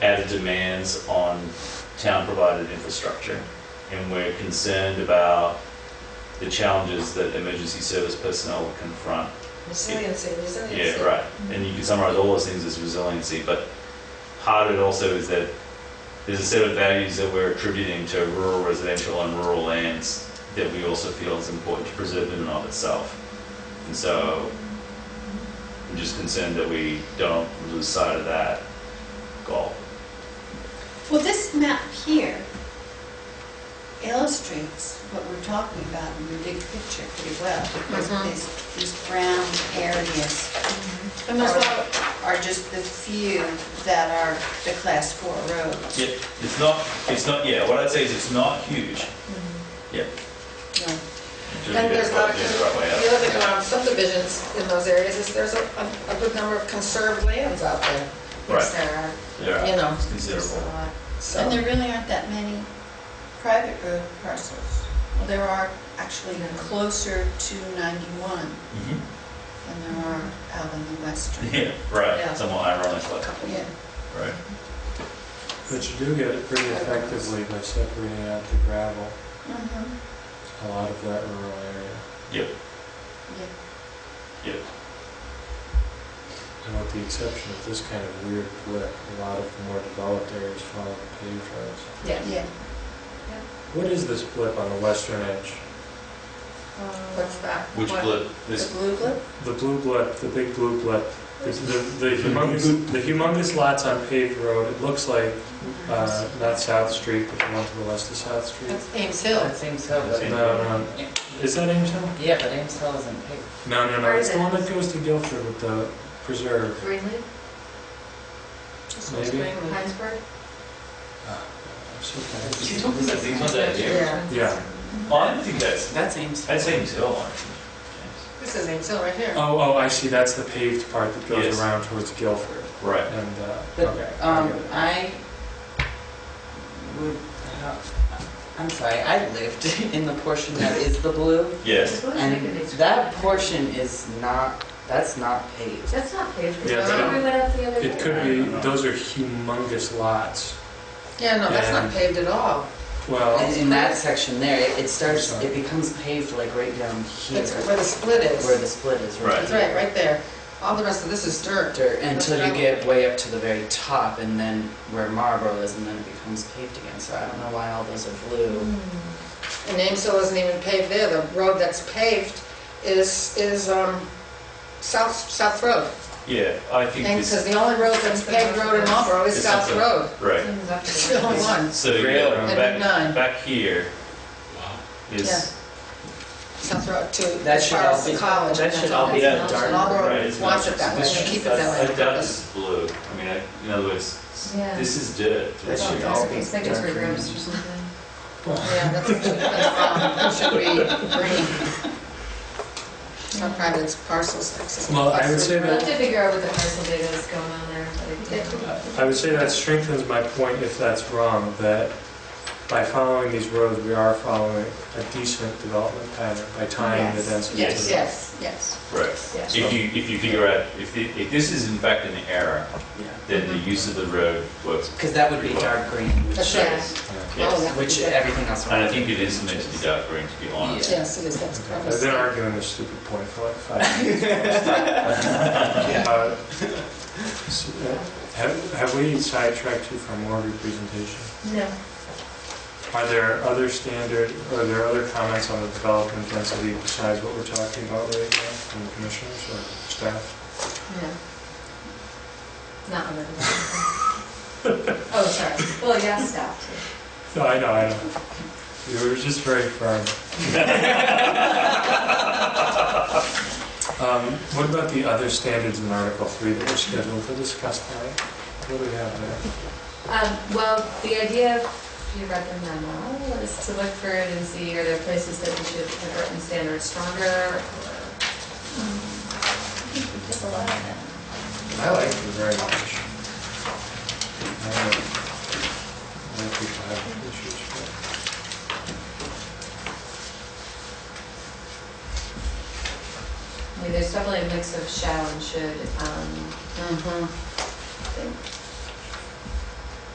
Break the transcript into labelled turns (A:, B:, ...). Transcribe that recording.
A: as demands on town-provided infrastructure. And we're concerned about the challenges that emergency service personnel confront.
B: Resiliency, resiliency.
A: Yeah, right. And you can summarize all those things as resiliency, but part of it also is that there's a set of values that we're attributing to rural residential and rural lands that we also feel is important to preserve in and of itself. And so I'm just concerned that we don't lose sight of that goal.
C: Well, this map here illustrates what we're talking about in the big picture pretty well. because
D: Mhm.
C: These, these brown areas
B: And that's why,
C: are just the few that are the class four roads.
A: Yep. It's not, it's not, yeah, what I'd say is it's not huge. Yep.
C: No.
A: Should
B: and
A: be
B: Mm-hmm. there's not,
A: the right way
B: if
A: out.
B: you look at um, subdivisions in those areas, is there's a, a a good number of conserved lands out there.
D: Yes, there are,
A: Yeah.
B: You know,
A: It's
D: there's a
A: considerable.
D: lot.
B: so.
C: And there really aren't that many private road parcels. Well, there are actually closer to 91
A: Mhm.
C: than there are out in the western.
A: Yeah,
B: Yeah.
A: right, somewhat ironically,
B: Couple,
C: Yeah.
A: right.
E: But you do get it pretty effectively by separating out the gravel,
C: Mhm.
E: a lot of that rural area.
A: Yep,
C: Yeah.
A: yep.
E: And with the exception of this kind of weird blip, a lot of the more developed areas follow the paved roads.
B: Yeah.
C: Yeah.
E: What is this blip on the western edge?
B: What's that?
A: Which
B: What?
A: blip,
C: The
A: this,
C: blue blip?
E: The blue blip, the big blue blip, the, the the humongous, the humongous lots on paved road, it looks like, uh, not South Street, but the one to the west of South Street.
F: That's Ames Hill. That's Ames Hill.
A: but-
E: No, no, is that Ames Hill?
F: Yeah, but Ames Hill isn't paved.
E: No, no, no,
D: Where
E: it's
D: is
E: the
D: it?
E: one that goes to Guilford with the preserve.
D: Greenleaf,
B: Just what's
E: Maybe.
B: mainly-
D: Heinsberg?
E: Ah, I'm so bad.
A: these ones that- these ones that here?
B: Yeah.
E: Yeah.
A: Oh, I don't think that's,
F: That's Ames.
A: that seems ill, actually.
B: This is Ames Hill right here.
E: Oh, oh, I see, that's the paved part that
A: Yes.
E: goes around towards Guilford.
A: Right.
E: And, uh,
F: But,
E: okay. I
F: um,
E: get it.
F: I would, I'm sorry, I lived in the portion that is the blue.
A: Yes,
F: And that portion is not, that's not paved.
D: That's not paved.
E: Yeah,
D: That's
B: but
D: where we went up the other day.
E: It could be, those are humongous lots.
B: Yeah, no, that's not
E: Yeah.
B: paved at all.
E: Well,
F: And in that section there, it- it starts, it becomes paved like right down here,
B: That's where the split
F: where
B: is.
F: the split is,
A: Right.
F: right?
B: That's right, right there. All the rest of this is dirt.
F: Dirt, Until you get way up to the very top and then where Marlboro is, and then it becomes paved again. So I don't know why all those are blue.
B: Hmm. And Ames Hill isn't even paved there. The road that's paved is, is, um, South, South Road.
A: yeah, I think
B: And
A: this,
B: says the only road that's paved road in Marlboro is
A: It's
B: South
A: something-
B: Road.
A: right.
B: It's the only
D: Right.
B: one,
A: So,
E: Rail
A: yeah,
E: road.
B: Nine.
A: back, back here is,
B: South Road to,
F: That
B: as
F: should
B: far
F: all
B: as
F: be,
B: the college.
F: that
B: and
F: should
B: that's
F: all be
A: Yeah.
F: dark.
B: And Marlboro
A: Right, it's
B: wants
A: not-
B: it that way,
A: this
B: they keep it
F: should-
B: that
A: I
B: way. on
A: doubt
B: purpose.
A: this is blue. I mean, I, in other words, s-
D: Yeah.
A: this is dirt.
F: That
A: It's-
F: should all be
D: It's like it's
F: dark green.
D: reversed or something.
B: Yeah, that's, that's, um, it should be green. Some private parcels. accessible
E: Well, I would
B: parcels.
E: say
D: We'll have
E: that-
D: to figure out what the parcel data is going on there, but it did.
E: I would say that strengthens my point if that's wrong, that by following these roads, we are following a decent development pattern by tying the
D: Yes.
E: density to
B: Yes,
E: the.
B: yes, yes.
A: Right.
D: Yeah.
A: If you, if you figure out, if, thi- if this is in fact an error,
F: Yeah.
A: then the use of the road works.
F: Because that would be dark green,
B: That's
F: which,
B: right.
D: Yeah.
B: Oh, that would
F: which
B: be good.
F: everything else.
A: And I think it is meant to be dark green, to be honest.
B: Yes, it is, that's correct.
E: I've been arguing this stupid point for like five minutes. Uh, s- uh, Have have we sidetracked you from more of your presentation?
D: No.
E: Are there other standard, are there other comments on the development density besides what we're talking about right now from the commissioners or staff?
D: No. Not on the. Oh, sorry. Well, yeah, stop too.
E: No, I know, I know. You were just very firm. Um, What about the other standards in Article 3 that were scheduled to discuss tonight? What do we have there?
D: Um, well, the idea, if you read the memo, is to look for it and see are there places that we should have written standards stronger or.
C: There's a lot of that.
E: I like it very much. I know- I know people have issues, but-
D: I mean, there's definitely a mix of shall and should, um,
C: Mhm.